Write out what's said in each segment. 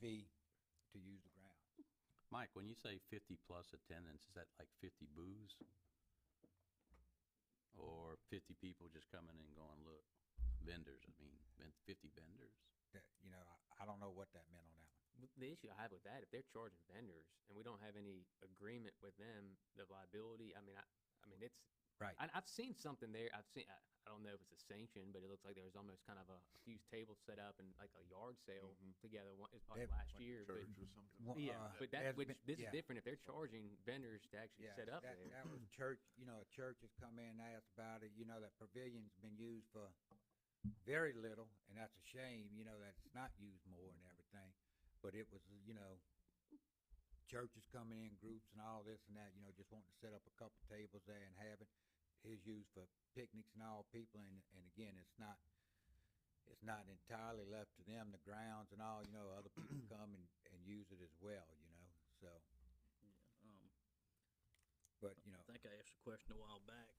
fee to use the ground. Mike, when you say fifty plus attendance, is that like fifty booths? Or fifty people just coming and going, look, vendors, I mean, ven- fifty vendors? That, you know, I, I don't know what that meant on that one. W- The issue I have with that, if they're charging vendors and we don't have any agreement with them, the liability, I mean, I, I mean, it's, Right. I, I've seen something there, I've seen, I, I don't know if it's a sanction, but it looks like there was almost kind of a few tables set up and like a yard sale together, one, it's probably Mm-hmm. They- last year, but, Church or something. Well, yeah, uh, but there's that, which, been- this yeah. is different, if they're charging vendors to actually Yeah, set up that, there. that was church, you know, a church has come in and asked about it, you know, that pavilion's been used for very little, and that's a shame, you know, that it's not used more and everything. But it was, you know, churches coming in, groups and all this and that, you know, just wanting to set up a couple tables there and have it. It's used for picnics and all people, and, and again, it's not, it's not entirely left to them, the grounds and all, you know, other people come and, and use it as well, you know, so, Um, but, you know. I think I asked a question a while back.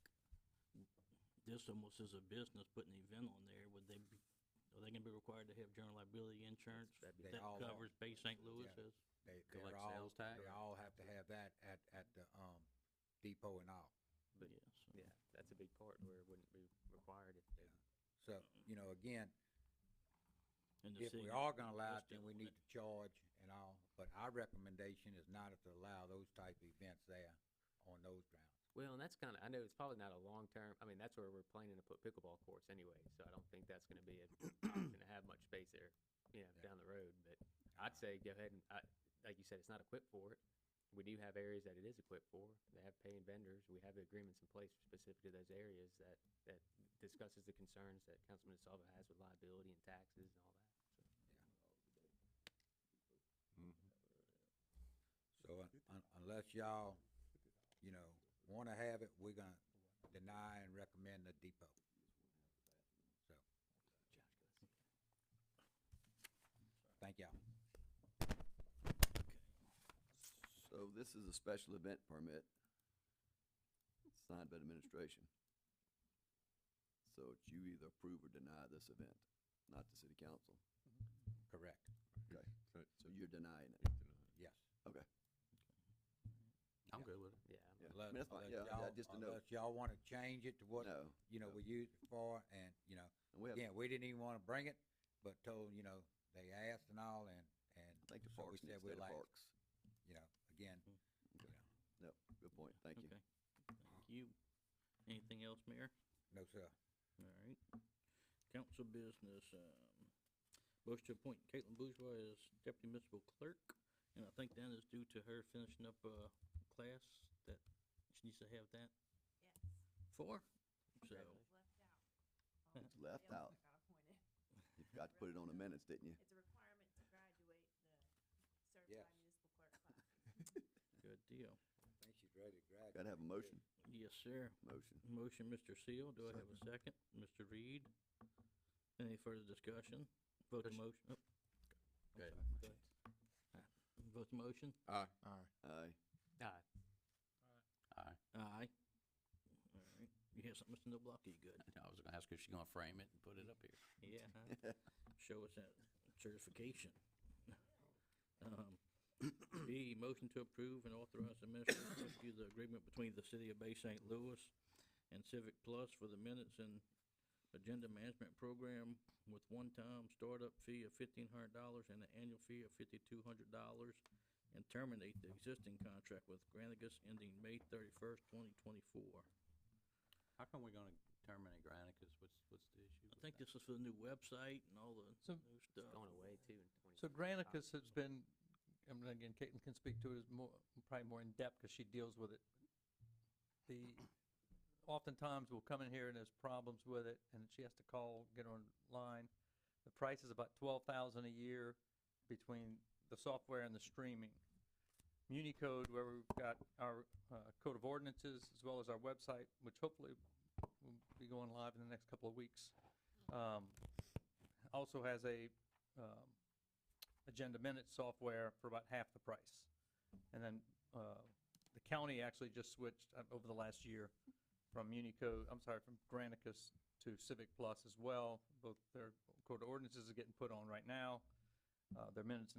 This almost is a business putting an event on there, would they, be- are they gonna be required to have general liability insurance? That'd be- They That all are. covers Bay St. Louis Yeah. as? They, they're Collect all, sales tax? they all have to have that at, at the, um, depot and all. But- Yeah, so- Yeah, that's a big part where it wouldn't be required if they So, you know, again, And the if city, we are gonna allow it, let's then deal we with need it. to charge and all, but our recommendation is not to allow those type of events there on those grounds. Well, and that's kind of, I know it's probably not a long term, I mean, that's where we're planning to put pickleball courts anyway, so I don't think that's gonna be a, option to have much space there, you know, Yeah. down the road, but I'd say go ahead and, I, like you said, it's not equipped for it. We do have areas that it is equipped for, they have paying vendors, we have the agreements in place specific to those areas that, that discusses the concerns that Councilman DeSalvo has with liability and taxes and all that, so. So un- un- unless y'all, you know, wanna have it, we're gonna deny and recommend the depot. So. Thank y'all. So this is a special event permit signed by the administration. So it's you either approve or deny this event, not the city council. Correct, Okay, Right, so you're denying it. yes. Okay. I'm Yeah. good with it. Yeah, I'm- Yeah. I Unless, mean, that's fine. unless Yeah, yeah, y'all, just a note. unless y'all wanna change it to what, No. you know, no. we used it for, and, you know, And we have, again, we didn't even wanna bring it, but told, you know, they asked and all, and, and, I think the so we parks, said needs we'd state like- parks. you know, again, you know, No, good point, thank you. Okay, thank you. Anything else, Mayor? no, sir. All right. Council business, um, motion to appoint Caitlin Bourgeois as deputy municipal clerk. And I think that is due to her finishing up a class that she needs to have that Yes, for. So, was left out. Um, It's left out. everybody else that got appointed. You forgot to put it on the minutes, didn't you? It's a requirement to graduate Yes. the certified municipal clerk class. good deal. I think she's ready to graduate. Gotta have a motion, Yes, sir. motion. Motion, Mr. Seal. Do I have a second? Mr. Reed? Any further discussion? Vote the Discussion. motion. oh, Go ahead. go ahead. Uh, Vote the motion. Aye, uh, Aye. Aye. All right. You have something, Mr. Noblocky? Good. I was gonna ask if she's gonna frame it and put it up here. Yeah. huh? Show us that certification. Um, B, motion to approve and authorize the minister to execute the agreement between the city of Bay St. Louis and Civic Plus for the minutes and agenda management program with one-time startup fee of fifteen hundred dollars and an annual fee of fifty-two hundred dollars and terminate the existing contract with Granicus ending May thirty-first, twenty twenty-four. How come we're gonna terminate Granicus? What's, what's the issue? I think this is for the new website and all the So- new stuff. it's going away too in twenty. So Granicus has been, and again, Caitlin can speak to it as more, probably more in depth because she deals with it. The, oftentimes we'll come in here and there's problems with it and she has to call, get online. The price is about twelve thousand a year between the software and the streaming. MuniCode, where we've got our uh, code of ordinances as well as our website, which hopefully will be going live in the next couple of weeks. um, Also has a um, agenda minute software for about half the price. And then uh, the county actually just switched uh, over the last year from Unicode, I'm sorry, from Granicus to Civic Plus as well. Both their code of ordinances are getting put on right now. Uh, Their minutes and